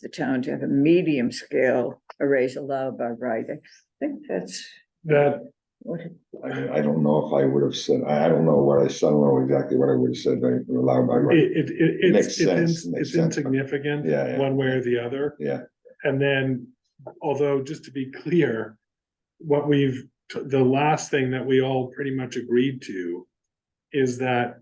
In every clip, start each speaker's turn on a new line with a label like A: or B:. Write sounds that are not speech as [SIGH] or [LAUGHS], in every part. A: the town to have a medium scale arrays allowed by right. I think that's
B: That,
A: what,
C: I, I don't know if I would have said, I, I don't know what I, said. I don't know exactly what I would have said, but allowed by
B: it,
C: right.
B: it, it,
C: Makes
B: it's, it's
C: sense,
B: in-
C: makes
B: it's
C: sense.
B: insignificant.
C: Yeah, yeah.
B: One way or the other.
C: Yeah.
B: And then, although, just to be clear, what we've, the last thing that we all pretty much agreed to is that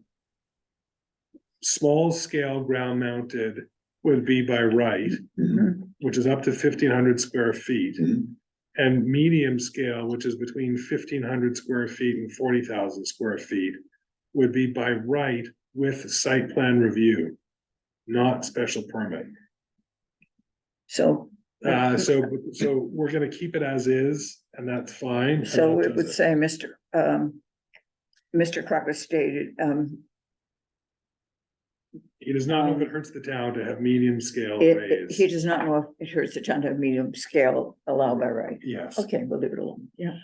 B: small scale ground mounted would be by right,
A: Mhm.
B: which is up to fifteen hundred square feet.
C: Mhm.
B: And medium scale, which is between fifteen hundred square feet and forty thousand square feet, would be by right with site plan review, not special permit.
A: so,
B: Uh, so, so we're gonna keep it as is, and that's fine. and
A: so
B: that
A: it would
B: does
A: say, Mr. Um, Mr. Crocker stated, um,
B: He does not know if it hurts the town to have medium scale
A: it, he
B: raise.
A: does not know if it hurts the town to have medium scale allowed by right.
B: Yes,
A: Okay, we'll leave it alone. Yeah,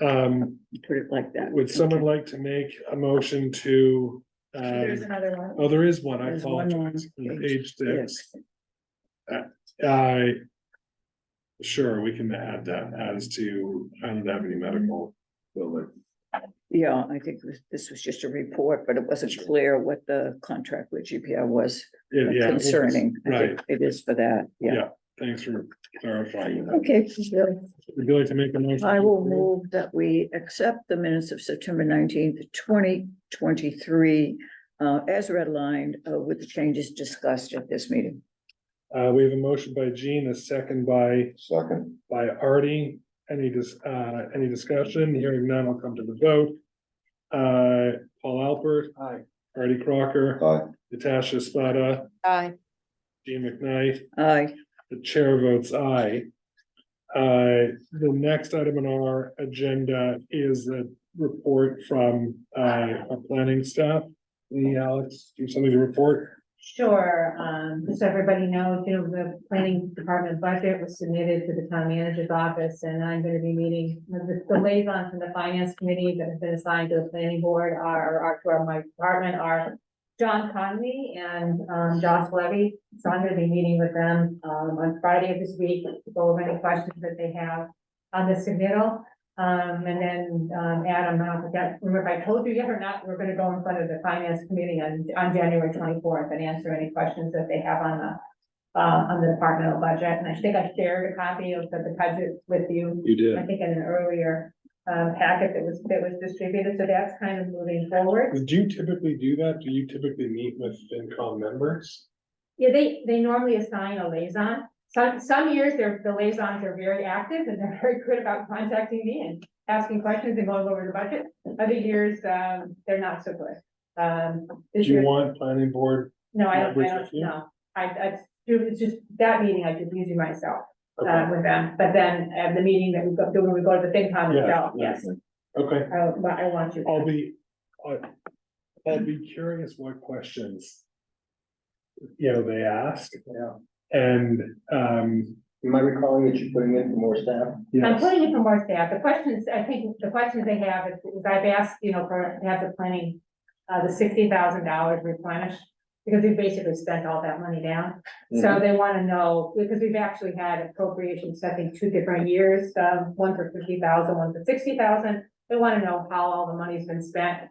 B: um,
A: put it like that.
B: would someone like to make a motion to,
D: There's
B: um,
D: another one.
B: oh, there is one, I
A: There's one on
B: apologize. on
A: page
B: Page six.
A: Yes.
B: I. Uh, Sure, we can add that as to Island Avenue Medical Building.
A: Yeah, I think this- this was just a report, but it wasn't clear what the contract with GPI was
B: Yeah, yeah, it was-
A: concerning. I think
B: Right,
A: It is for that, yeah.
B: Yeah. thanks for clarifying that.
A: Okay, so
B: Would you like to make a motion?
A: I will move that we accept the minutes of September nineteenth, twenty twenty-three uh, as redlined uh, with the changes discussed at this meeting.
B: Uh, we have a motion by Gene, a second by,
C: Second,
B: by Artie. Any dis, uh, any discussion? Hearing none, I'll come to the vote. Uh, Paul Alpert. Aye. Artie Crocker.
C: aye,
B: Natasha Spada.
D: Aye.
B: Gene McKnight.
A: Aye,
B: The chair votes aye. Uh, the next item on our agenda is a report from, uh, our planning staff. Lee, Alex, do you have something to report?
D: Sure, um, just so everybody knows, you know, the planning department budget was submitted to the town manager's office, and I'm gonna be meeting. The the liaison from the finance committee that have been assigned to the planning board are, are to our, my department are John Conley and, um, Josh Levy, so I'm gonna be meeting with them, um, on Friday of this week, to go over any questions that they have on this submittal. Um, and then, um, Adam, I forgot, remember if I told you yet or not, we're gonna go in front of the finance committee on, on January twenty-fourth and answer any questions that they have on the, uh, on the departmental budget, and I think I shared a copy of the budget with you,
B: You
D: I
B: did.
D: think in an earlier, um, packet that was, that was distributed, so that's kind of moving forward.
B: Do you typically do that? Do you typically meet with FinCom members?
D: Yeah, they, they normally assign a liaison. Some, some years, their, the liaisons are very active and they're [LAUGHS] very good about contacting me and asking questions and going over the budget. Other years, um, they're not so good. Um,
B: Do
D: this
B: you
D: year,
B: want planning board?
D: no, I don't, I
B: members
D: don't,
B: with you?
D: no. I, I, do- it's just that meeting, I did usually myself, uh,
B: Okay,
D: with them. But then, uh, the meeting that we go, when we go to the FinCom
B: Yeah,
D: itself,
B: yeah.
D: yes,
B: Okay,
D: I, I want you.
B: I'll be, I, I'll be curious what questions. You know, they ask
E: Yeah,
B: and, um,
E: am I recalling that you're putting in for more staff?
D: I'm
B: yes,
D: putting it from more staff. The questions, I think the questions they have is, is I've asked, you know, for, to have the planning, uh, the sixty thousand dollars replenished. Because we basically spent all that money down. So they wanna know, because we've actually had appropriations, I think, two different years, um, one for fifty thousand, one for sixty thousand. They wanna know how all the money's been spent,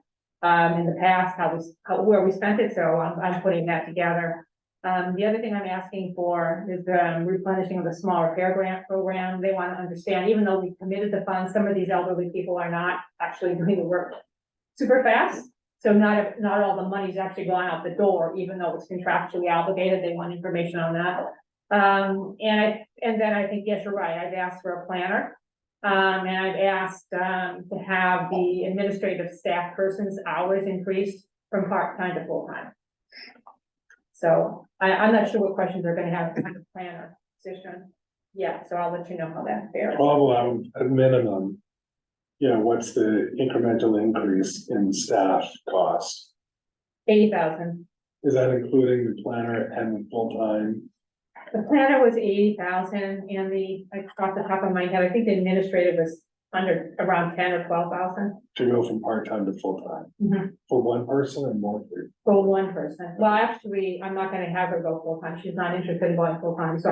D: um, in the past, how we, how, where we spent it, so I'm, I'm putting that together. Um, the other thing I'm asking for is the replenishing of the small repair grant program. They want to understand, even though we committed the funds, some of these elderly people are not actually [LAUGHS] doing the work super fast. So not, not all the money's actually gone out the door, even though it's contractually obligated. They want information on that. Um, and I, and then I think, yes, you're right. I've asked for a planner. Um, and I've asked, um, to have the administrative staff person's hours increased from part-time to full-time. So I, I'm not sure what questions they're gonna have on the planner position. Yeah, so I'll let you know how that fares.
B: problem at minimum. You know, what's the incremental increase in staff cost?
D: Eighty thousand.
B: Is that including the planner and the full-time?
D: The planner was eighty thousand and the, I off the top of my head, I think the administrative was under, around ten or twelve thousand
B: To go from part-time to full-time?
D: Mhm.
B: For one person and more for
D: for one person. Well, actually, I'm not gonna have her go full-time. She's not interested in going full-time, so